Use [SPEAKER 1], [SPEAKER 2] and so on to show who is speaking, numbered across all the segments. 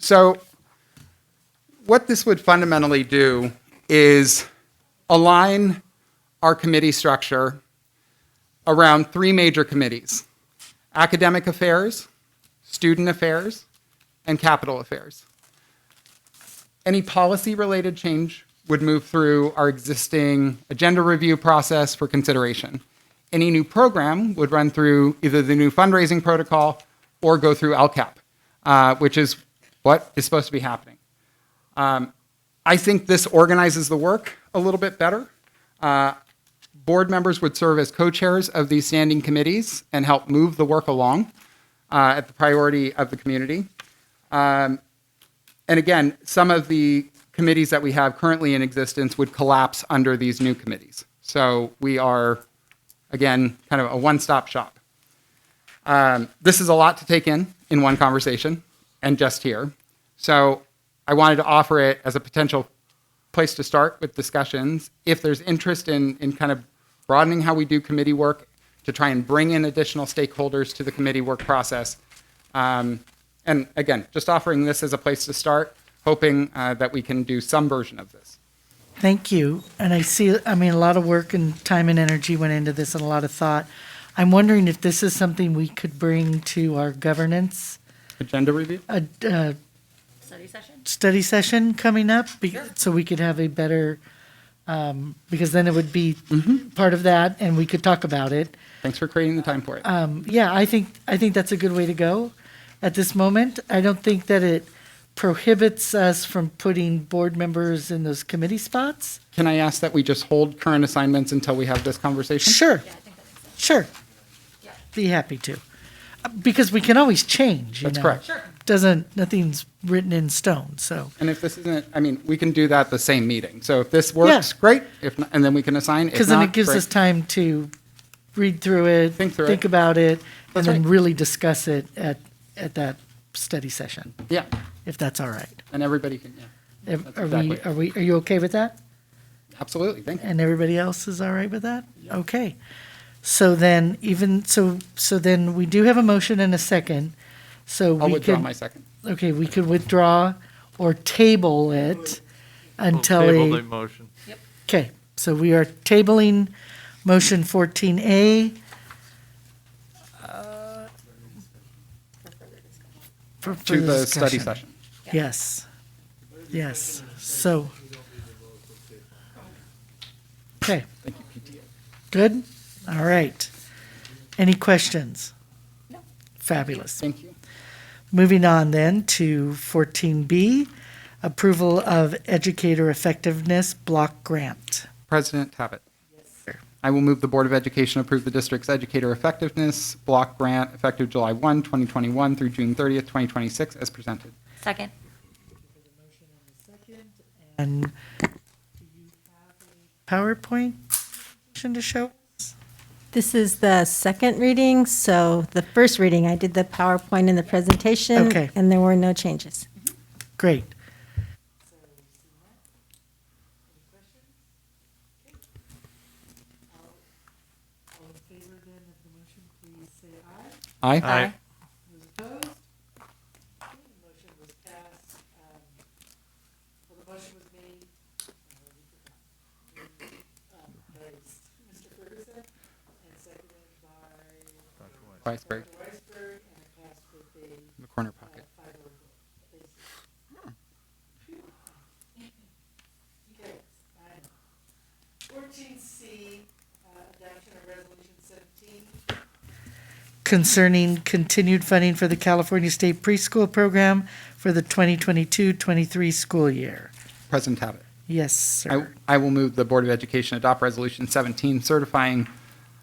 [SPEAKER 1] So, what this would fundamentally do is align our committee structure around three major committees academic affairs, student affairs, and capital affairs. Any policy related change would move through our existing agenda review process for consideration. Any new program would run through either the new fundraising protocol or go through LCAP, uh, which is what is supposed to be happening. Um, I think this organizes the work a little bit better. Uh, board members would serve as co-chairs of these standing committees and help move the work along uh, at the priority of the community. Um, and again, some of the committees that we have currently in existence would collapse under these new committees. So we are, again, kind of a one-stop shop. Um, this is a lot to take in in one conversation and just here. So I wanted to offer it as a potential place to start with discussions. If there's interest in, in kind of broadening how we do committee work to try and bring in additional stakeholders to the committee work process. Um, and again, just offering this as a place to start, hoping uh, that we can do some version of this.
[SPEAKER 2] Thank you. And I see, I mean, a lot of work and time and energy went into this and a lot of thought. I'm wondering if this is something we could bring to our governance
[SPEAKER 1] Agenda review?
[SPEAKER 2] uh, uh,
[SPEAKER 3] study session?
[SPEAKER 2] study session coming up be- so we could have a better, um, because then it would be part of that and we could talk about it.
[SPEAKER 1] Thanks for creating the time for it.
[SPEAKER 2] Uh, yeah, I think I think that's a good way to go at this moment. I don't think that it prohibits us from putting board members in those committee spots.
[SPEAKER 1] can I ask that we just hold current assignments until we have this conversation?
[SPEAKER 2] Sure. Sure. Be happy to. Uh, Because we can always change, you
[SPEAKER 1] That's
[SPEAKER 2] know.
[SPEAKER 1] correct. Sure.
[SPEAKER 2] Doesn't, nothing's written in stone, so.
[SPEAKER 1] And if this isn't, I mean, we can do that the same meeting. So if this works,
[SPEAKER 2] Yeah.
[SPEAKER 1] great. If not, and then we can assign. If
[SPEAKER 2] Because then
[SPEAKER 1] not,
[SPEAKER 2] it gives
[SPEAKER 1] great.
[SPEAKER 2] us time to read through it.
[SPEAKER 1] Think through it.
[SPEAKER 2] about it,
[SPEAKER 1] That's
[SPEAKER 2] and then
[SPEAKER 1] right.
[SPEAKER 2] really discuss it at, at that study session,
[SPEAKER 1] Yeah,
[SPEAKER 2] if that's all right.
[SPEAKER 1] and everybody can. Yeah,
[SPEAKER 2] Ev-
[SPEAKER 1] That's
[SPEAKER 2] Are we,
[SPEAKER 1] exactly.
[SPEAKER 2] are we, are you okay with that?
[SPEAKER 1] absolutely. Thank you.
[SPEAKER 2] And everybody else is all right with that? Okay. So then even, so, so then we do have a motion and a second, so
[SPEAKER 1] I'll
[SPEAKER 2] we
[SPEAKER 1] withdraw
[SPEAKER 2] could-
[SPEAKER 1] my second.
[SPEAKER 2] Okay, we could withdraw or table it
[SPEAKER 4] We'll
[SPEAKER 2] until
[SPEAKER 4] Table the
[SPEAKER 2] a,
[SPEAKER 4] motion.
[SPEAKER 2] okay, so we are tabling motion 14A. uh, for
[SPEAKER 1] To
[SPEAKER 2] further
[SPEAKER 1] the study
[SPEAKER 2] discussion.
[SPEAKER 1] session.
[SPEAKER 2] Yes, yes, so. Okay. Good, all right. Any questions?
[SPEAKER 3] No.
[SPEAKER 2] Fabulous.
[SPEAKER 1] Thank you.
[SPEAKER 2] Moving on then to 14B, approval of educator effectiveness block grant.
[SPEAKER 1] President Tabbitt. I will move the Board of Education approve the district's educator effectiveness block grant effective July 1, 2021 through June 30th, 2026 as presented.
[SPEAKER 3] Second.
[SPEAKER 2] And PowerPoint motion to show?
[SPEAKER 5] This is the second reading, so the first reading, I did the PowerPoint and the presentation.
[SPEAKER 2] Okay.
[SPEAKER 5] And there were no changes.
[SPEAKER 2] Great.
[SPEAKER 1] Aye.
[SPEAKER 4] Aye.
[SPEAKER 2] um, uh, Um,
[SPEAKER 1] Weisberg. In the corner pocket.
[SPEAKER 2] Fourteen C, adoption of resolution seventeen. Concerning continued funding for the California State Preschool Program for the 2022-23 school year.
[SPEAKER 1] President Tabbitt.
[SPEAKER 2] Yes,
[SPEAKER 1] I,
[SPEAKER 2] sir.
[SPEAKER 1] I will move the Board of Education adopt Resolution 17 certifying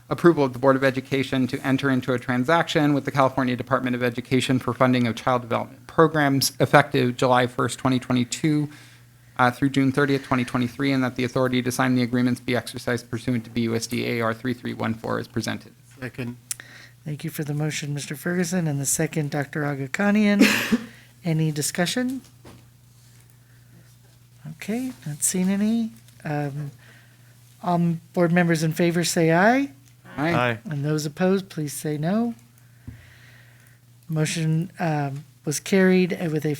[SPEAKER 1] approval of the Board of Education to enter into a transaction with the California Department of Education for funding of child development programs effective July 1st, 2022 uh, through June 30th, 2023, and that the authority to sign the agreements be exercised pursuant to BUSD AR 3314 as presented.
[SPEAKER 4] Second.
[SPEAKER 2] Thank you for the motion, Mr. Ferguson, and the second, Dr. Agakanian. Any discussion? Okay, not seen any. Um, All board members in favor say aye,
[SPEAKER 4] Aye.
[SPEAKER 2] and those opposed, please say no. Motion um, was carried with a